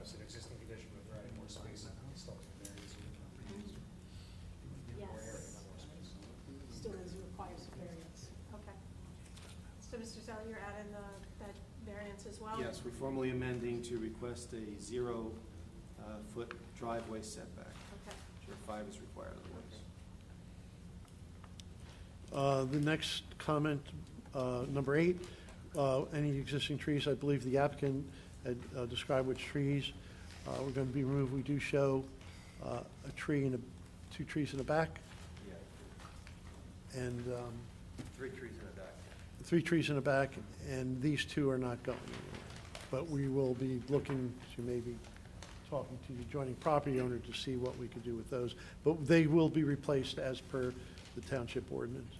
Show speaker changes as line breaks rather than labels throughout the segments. it's an existing condition, but providing more space and installing areas. More area,
Yes.
not more space.
Still is requires a variance. Okay. So, Mr. Zeller, you're adding the, that variance as well?
Yes, we're formally amending to request a zero-foot driveway setback,
Okay.
where five is required otherwise.
Uh, The next comment, uh, number eight, uh, any existing trees, I believe the applicant had uh, described which trees uh, were going to be removed. We do show uh, a tree and a, two trees in the back,
Yeah,
and um,
three trees in a dock.
three trees in the back, and these two are not going anywhere. But we will be looking to maybe talking to the adjoining property owner to see what we could do with those. But they will be replaced as per the township ordinance.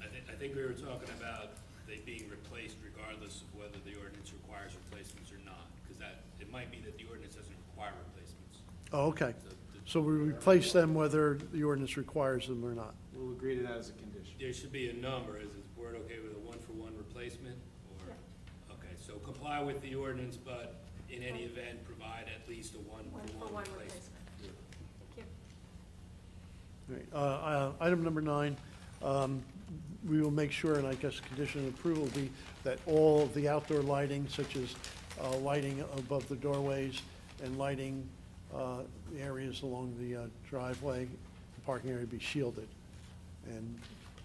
I think, I think we were talking about they being replaced regardless of whether the ordinance requires replacements or not, because that, it might be that the ordinance doesn't require replacements.
Oh, okay.
So th-
So we replace them whether the ordinance requires them or not.
We'll agree to that as a condition.
There should be a number, is the board okay with a one-for-one replacement, or, okay, so comply with the ordinance, but in any event, provide at least a
One for
one-for-one
one
replacement.
replacement. Thank you.
All right, uh, uh, Item number nine, um, we will make sure, and I guess condition of approval will be that all of the outdoor lighting, such as uh, lighting above the doorways and lighting uh, the areas along the uh, driveway, the parking area be shielded and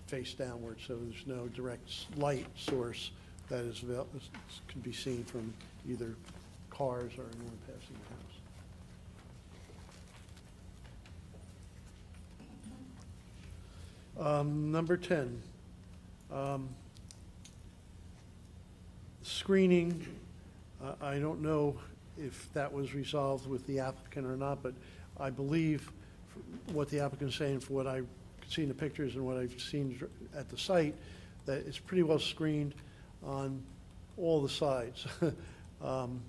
face downward, so there's no direct s- light source that is, avail- can be seen from either cars or anyone passing the house. Um, Number 10, um, screening, uh, I don't know if that was resolved with the applicant or not, but I believe f- what the applicant's saying, for what I could see in the pictures and what I've seen dr- at the site, that it's pretty well screened on all the sides, um,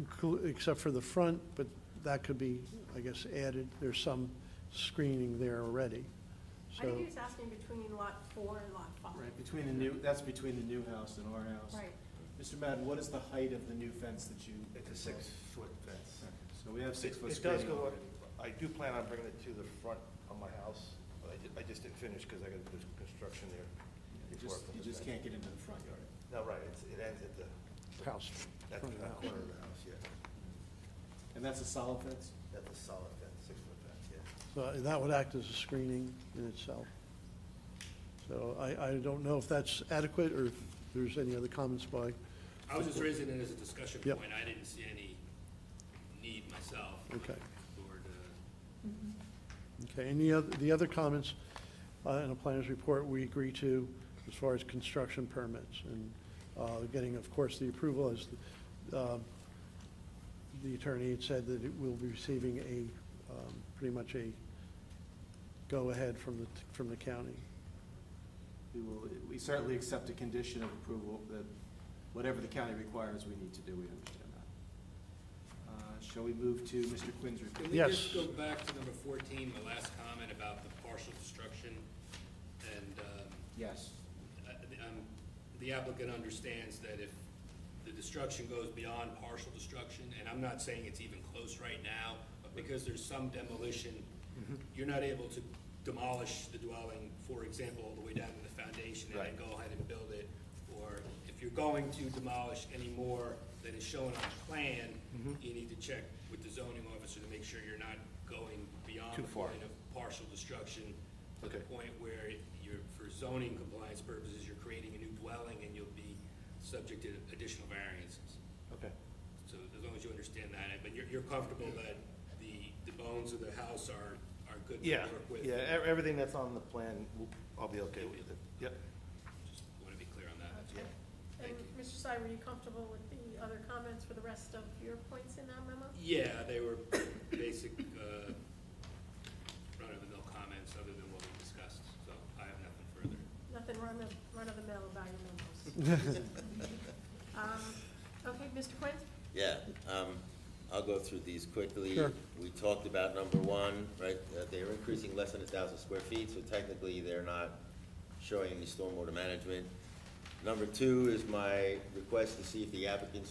inclu- except for the front, but that could be, I guess, added. There's some screening there already,
I
so.
think he was asking between lot four and lot five.
Right, between the new, that's between the new house and our house.
Right.
Mr. Madden, what is the height of the new fence that you?
It's a six-foot fence.
So we have six
It-
foot
It does
screening.
go up, I do plan on bringing it to the front of my house, but I ju- I just didn't finish because I got, there's construction there.
You
before I
just,
put
you
the
just can't
fence.
get into the front yard.
No, right, it's, it ends at the,
house.
at
front of the
the
house.
corner of the house, yeah.
And that's a solid fence?
That's a solid fence, six-foot fence, yeah.
So and that would act as a screening in itself. So I, I don't know if that's adequate or if there's any other comments by,
I was just raising it as a discussion
Yep.
point, I didn't see any need myself.
Okay.
For the,
okay, any other, the other comments uh, in the planner's report we agree to as far as construction permits and uh, getting, of course, the approval as uh, the attorney had said that it will be receiving a, um, pretty much a go-ahead from the, from the county.
We will, we certainly accept a condition of approval that whatever the county requires, we need to do, we understand that. Uh, Shall we move to Mr. Quinn's report?
Can we
Yes.
just go back to number fourteen, the last comment about the partial destruction? And, um,
Yes.
uh, the- um, the applicant understands that if the destruction goes beyond partial destruction, and I'm not saying it's even close right now, but because there's some demolition,
Mm-hmm.
you're not able to demolish the dwelling, for example, all the way down to the foundation and then
Right.
go ahead and build it. Or if you're going to demolish any more than is shown on the plan,
Mm-hmm.
you need to check with the zoning officer to make sure you're not going beyond
Too
the
far.
point of partial destruction to the
Okay.
point where you're, for zoning compliance purposes, you're creating a new dwelling and you'll be subject to additional variances.
Okay.
So as long as you understand that, but you're, you're comfortable that the, the bones of the house are, are good to
Yeah,
work with?
yeah, e- everything that's on the plan, w- I'll be okay with it. Yep,
Just want to be clear on that.
Okay. And,
Thank you.
Mr. Sy, were you comfortable with the other comments for the rest of your points in that memo?
Yeah, they were basic, uh, run-of-the-mill comments other than what we discussed, so I have nothing further.
Nothing run of, run of the mill about your memos. Um, Okay, Mr. Quinn?
Yeah, um, I'll go through these quickly.
Sure.
We talked about number one, right, that they're increasing less than a thousand square feet, so technically they're not showing any stormwater management. Number two is my request to see if the applicant's